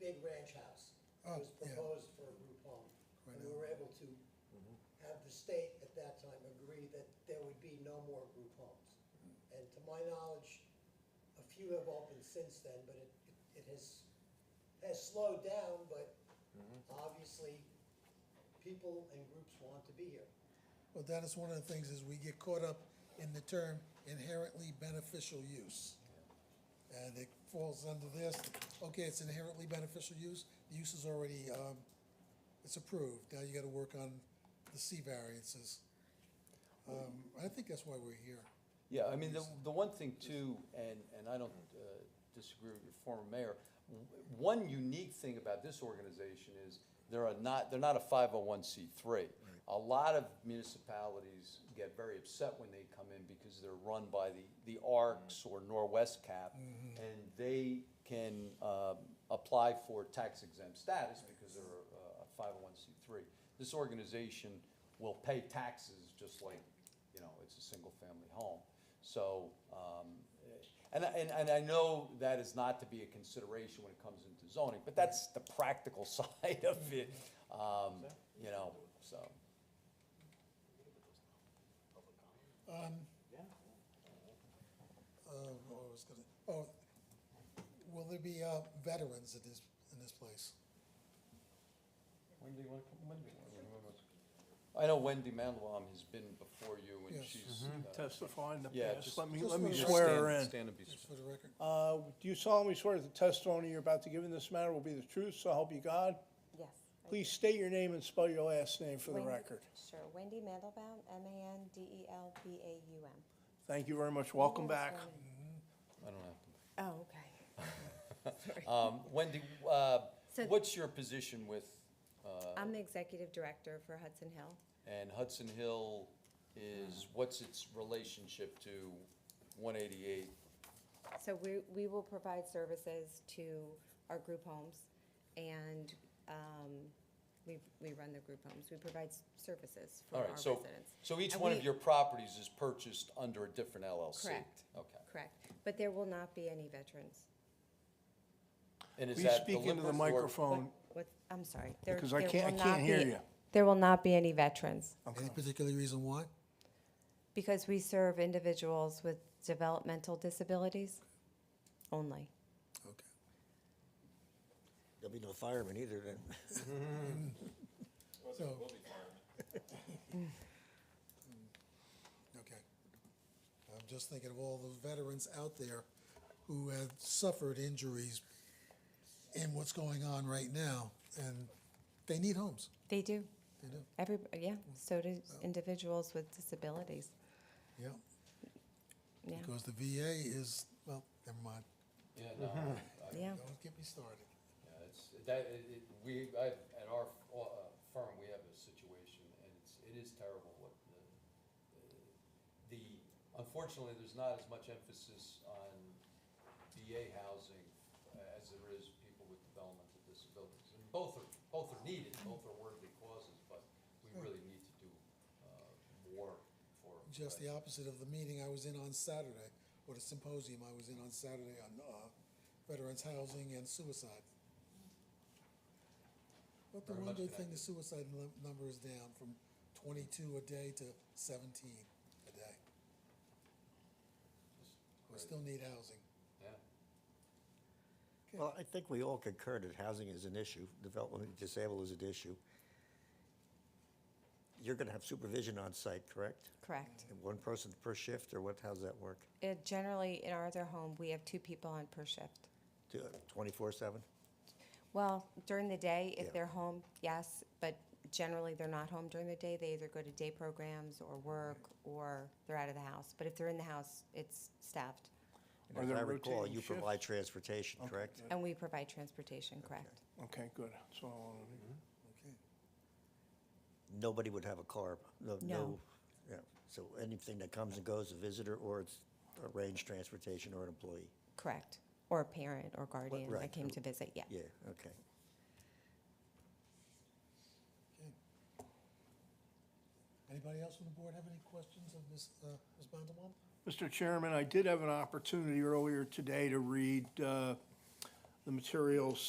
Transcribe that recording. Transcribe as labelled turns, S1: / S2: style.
S1: big ranch house.
S2: Oh,
S1: that was
S2: yeah.
S1: proposed for Rupon.
S2: Right
S1: And
S2: now.
S1: we were able to
S3: Mm-hmm.
S1: have the state at that time agree that there would be no more group homes.
S2: Mm.
S1: And to my knowledge, a few have opened since then, but it, it- it has, has slowed down, but
S3: Mm-hmm.
S1: obviously, people and groups want to be here.
S2: Well, that is one of the things, is we get caught up in the term inherently beneficial use. And it falls under this, okay, it's inherently beneficial use, the use is already, um, it's approved, now you gotta work on the C variances. Um, I think that's why we're here.
S4: Yeah, I mean, the, the one thing too, and, and I don't uh, disagree with your former mayor, w- one unique thing about this organization is they're a not, they're not a five oh one C three. A lot of municipalities get very upset when they come in because they're run by the, the ARCs or Norwest Cap. And they can um, apply for tax exempt status because they're a- a five oh one C three. This organization will pay taxes just like you know, it's a single-family home. So, um, eh, and, I- and, and I know that is not to be a consideration when it comes into zoning, but that's the practical side of it, um, you know, so.
S2: Uh, what I was gonna, oh, will there be, uh, veterans in this, in this place?
S4: Wendy, when, Wendy. I know Wendy Mandelbaum has been before you, and
S2: Yes.
S4: she's. uh,
S5: testify in the
S4: Yeah,
S5: past.
S4: just-
S5: Let me,
S2: just
S5: let me
S2: wanna-
S5: swear
S4: stand-
S5: her in.
S4: Stand and be,
S2: Just for the record,
S5: Uh, Do you solemnly swear that the testimony you're about to give in this matter will be the truth, so help you God?
S6: Yes. I
S5: Please state your name and spell your last name for the
S6: Wendy-
S5: record.
S6: Sure, Wendy Mandelbaum, E M-A-N-D-E-L-B-A-U-M.
S5: Thank you very much. Welcome
S6: Yes,
S5: back.
S6: Wendy.
S4: I don't have to.
S6: Oh, okay.
S4: Um, Wendy, uh,
S6: So-
S4: what's your position with, uh,
S6: I'm the executive director for Hudson Hill.
S4: and Hudson Hill
S6: Mm.
S4: is, what's its relationship to one eighty-eight
S6: So we, we will provide services to our group homes, and um, we, we run the group homes. We provide s- services for
S4: All
S6: our
S4: right, so,
S6: residents.
S4: so each
S6: And
S4: one of
S6: we-
S4: your properties is purchased under a different LLC?
S6: Correct.
S4: Okay.
S6: Correct, but there will not be any veterans.
S4: And is
S5: Please
S4: that the
S5: speak into
S4: Lippert
S5: the
S4: or-
S5: microphone.
S6: What, I'm sorry. there-
S5: Um, Because I
S6: there
S5: can't- I
S6: will
S5: can't
S6: not
S5: hear
S6: be-
S5: you.
S6: There will not be any veterans.
S2: any particular reason why?
S6: Because we serve individuals with developmental disabilities only.
S2: Okay.
S3: There'll be no firemen either then.
S2: So. Okay. I'm just thinking of all the veterans out there who have suffered injuries in what's going on right now, and they need homes,
S6: They do.
S2: they do,
S6: Every, yeah, so do individuals with disabilities.
S2: yeah.
S6: Yeah,
S2: Because the VA is, well, never mind,
S4: Yeah, no,
S6: yeah.
S2: don't get me started.
S4: yeah, it's, that, it, it- we, I, at our uh, firm, we have a situation, and it's, it is terrible what the, the, unfortunately, there's not as much emphasis on VA housing uh, as there is people with developmental disabilities. And both are, both are needed, both are worthy causes, but we
S2: Hmm.
S4: really need to do, uh, more for.
S2: Just the opposite of the meeting I was in on Saturday, or the symposium I was in on Saturday on uh, veterans housing and suicide. But the
S4: Very
S2: one
S4: much
S2: good thing,
S4: connected.
S2: the suicide num- number is down from twenty-two a day to seventeen a day. We still need housing.
S4: Yeah,
S3: Well, I think we all concur that housing is an issue, development of disabled is an issue. You're gonna have supervision on site, correct?
S6: Correct.
S3: And One person per shift, or what, how's that work?
S6: It- Generally, in our other home, we have two people on per shift.
S3: Twenty-four seven?
S6: Well, during the day,
S3: Yeah.
S6: if they're home, yes, but generally, they're not home during the day. They either go to day programs or work, or they're out of the house. But if they're in the house, it's staffed,
S3: And
S5: Are
S3: if
S5: there
S3: I recall,
S5: rotating
S3: you
S5: shifts?
S3: provide transportation, correct?
S6: and we provide transportation, correct?
S5: Okay, good. That's what I wanted to hear.
S2: Okay.
S3: Nobody would have a car, no, no.
S6: No.
S3: yeah. So anything that comes and goes, a visitor, or it's arranged transportation or an employee?
S6: Correct. Or a parent or guardian
S3: right.
S6: that came to visit, yeah.
S3: Yeah, okay.
S2: Okay. Anybody else on the board have any questions of Ms. uh, Ms. Bondelbaum?
S5: Mr. Chairman, I did have an opportunity earlier today to read uh, the materials